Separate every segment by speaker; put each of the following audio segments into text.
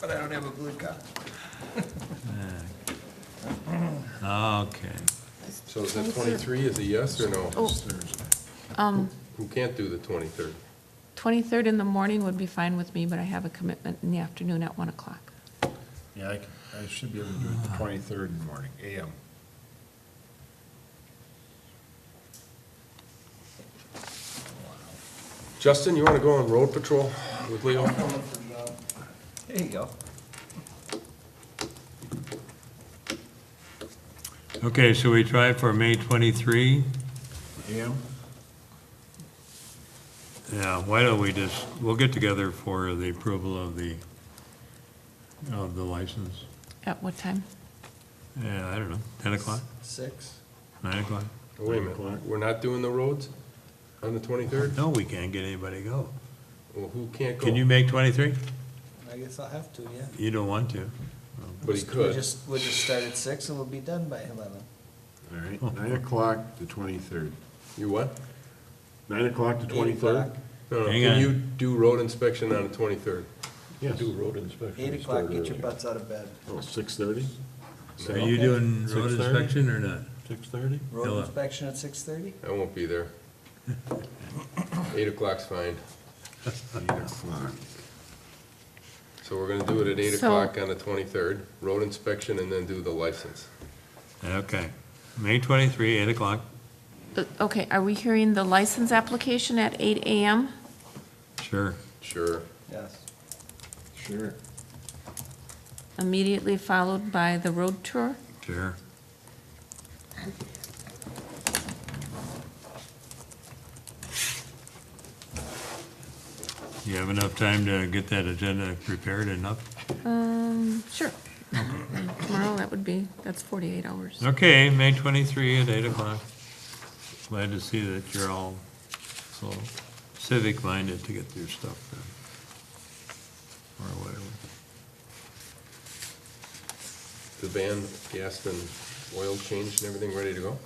Speaker 1: But I don't have a blue card.
Speaker 2: Okay.
Speaker 3: So is the 23 is a yes or no?
Speaker 4: Oh. um,
Speaker 3: Who can't do the 23rd?
Speaker 4: 23rd in the morning would be fine with me, but I have a commitment in the afternoon at 1 o'clock.
Speaker 5: Yeah, I, c- I should be able to do it the twenty-third in the morning, AM.
Speaker 3: Justin, you want to go on road patrol with Leo?
Speaker 1: There you go.
Speaker 2: Okay, so we try for May 23?
Speaker 5: AM?
Speaker 2: Yeah, why don't we just, we'll get together for the approval of the, of the license.
Speaker 4: At what time?
Speaker 2: Yeah, I don't know, 10 o'clock,
Speaker 1: Six.
Speaker 2: 9 o'clock?
Speaker 3: Wait a minute, we're not doing the roads on the 23rd?
Speaker 2: No, we can't get anybody to go.
Speaker 3: Well, who can't go?
Speaker 2: Can you make 23?
Speaker 1: I guess I'll have to, yeah.
Speaker 2: You don't want to.
Speaker 3: But he
Speaker 1: We'll
Speaker 3: could.
Speaker 1: just, we'll just start at six and we'll be done by eleven.
Speaker 5: All right,
Speaker 6: Oh.
Speaker 5: nine o'clock the twenty-third.
Speaker 3: You what?
Speaker 5: Nine o'clock the twenty-third?
Speaker 1: o'clock.
Speaker 3: No, no,
Speaker 2: Hang
Speaker 3: can
Speaker 2: on.
Speaker 3: you do road inspection on the 23rd?
Speaker 5: Yes.
Speaker 6: Do road inspection.
Speaker 1: Eight o'clock, get your butts out of bed.
Speaker 5: Oh, six-thirty?
Speaker 2: Are you doing road
Speaker 6: 6:30?
Speaker 2: inspection or not?
Speaker 6: Six thirty?
Speaker 1: Road
Speaker 2: Hello.
Speaker 1: inspection at six thirty?
Speaker 3: I won't be there. 8 o'clock's fine.
Speaker 5: Eight o'clock.
Speaker 3: So we're going to do it at 8
Speaker 4: So-
Speaker 3: o'clock on the 23rd, road inspection, and then do the license.
Speaker 2: Okay, May 23, 8 o'clock.
Speaker 4: Uh, Okay, are we hearing the license application at 8 AM?
Speaker 2: Sure.
Speaker 3: Sure.
Speaker 1: Yes.
Speaker 5: Sure.
Speaker 4: Immediately followed by the road tour?
Speaker 2: Sure. You have enough time to get that agenda prepared enough?
Speaker 4: Um, sure. Tomorrow, that would be, that's 48 hours.
Speaker 2: Okay, May twenty-three at eight o'clock. Glad to see that you're all so civic-minded to get your stuff done. Or whatever.
Speaker 3: The van, gas and oil changed and everything ready to go?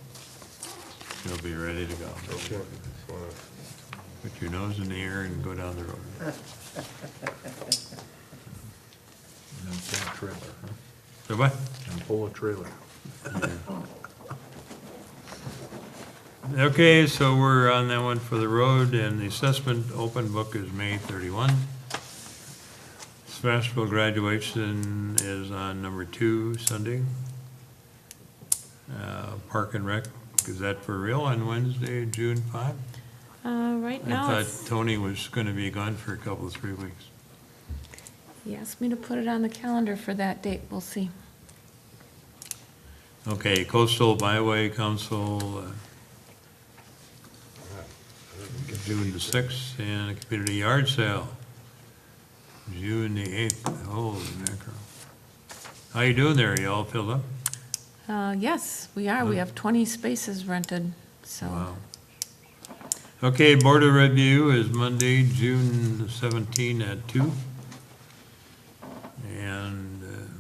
Speaker 2: You'll be ready to go.
Speaker 3: Okay. Just wanna-
Speaker 2: Put your nose in the air and go down the road.
Speaker 6: And pull a trailer, huh?
Speaker 2: So what?
Speaker 6: And pull a trailer.
Speaker 2: Okay, so we're on that one for the road, and the assessment open book is May thirty-one. Smashville graduation is on number two Sunday. Uh, Park and Rec, is that for real on Wednesday, June five?
Speaker 4: Uh, right
Speaker 2: I
Speaker 4: now,
Speaker 2: thought
Speaker 4: it's-
Speaker 2: Tony was gonna be gone for a couple, of three weeks.
Speaker 4: he asked me to put it on the calendar for that date, we'll see.
Speaker 2: Okay, Coastal Byway Council, uh, June the sixth, and a community yard sale, June the eighth, holy mackerel. How you doing there, you all filled up?
Speaker 4: Uh, yes, we are, we
Speaker 2: Hmm.
Speaker 4: have 20 spaces rented, so.
Speaker 2: Wow. Okay, Board of Review is Monday, June seventeenth at two. And, uh,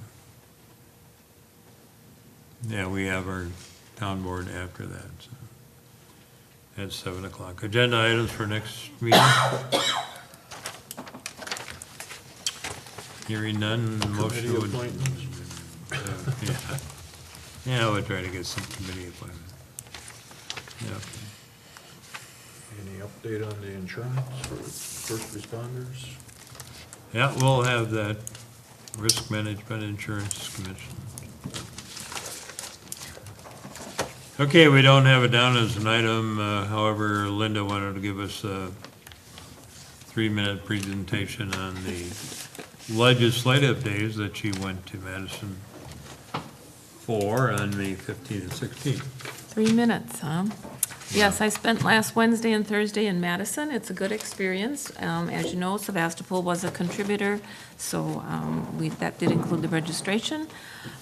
Speaker 2: yeah, we have our town board after that, so, at seven o'clock. Agenda items for next meeting. Hearing none, motion
Speaker 6: Committee
Speaker 2: would.
Speaker 6: appointments.
Speaker 2: Yeah. Yeah, we'll try to get some committee appointments. Yeah.
Speaker 6: Any update on the insurance for first responders?
Speaker 2: Yeah, we'll have that Risk Management Insurance Commission. Okay, we don't have it down as an item, uh, however, Linda wanted to give us a three-minute presentation on the legislative days that she went to Madison for on May 15th and 16th.
Speaker 4: Three minutes, huh? Yes, I spent last Wednesday and Thursday in Madison. It's a good experience. Um, As you know, Sebastopol was a contributor, so um, we, that did include the registration.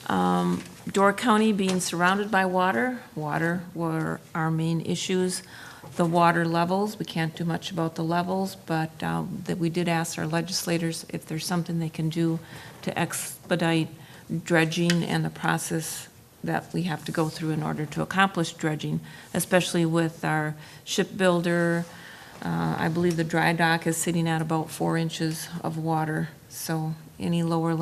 Speaker 4: Um, Door County being surrounded by water, water were our main issues. The water levels, we can't do much about the levels, but um, that we did ask our legislators if there's something they can do to expedite dredging and the process that we have to go through in order to accomplish dredging, especially with our shipbuilder. Uh, I believe the dry dock is sitting at about four inches of water, so any lower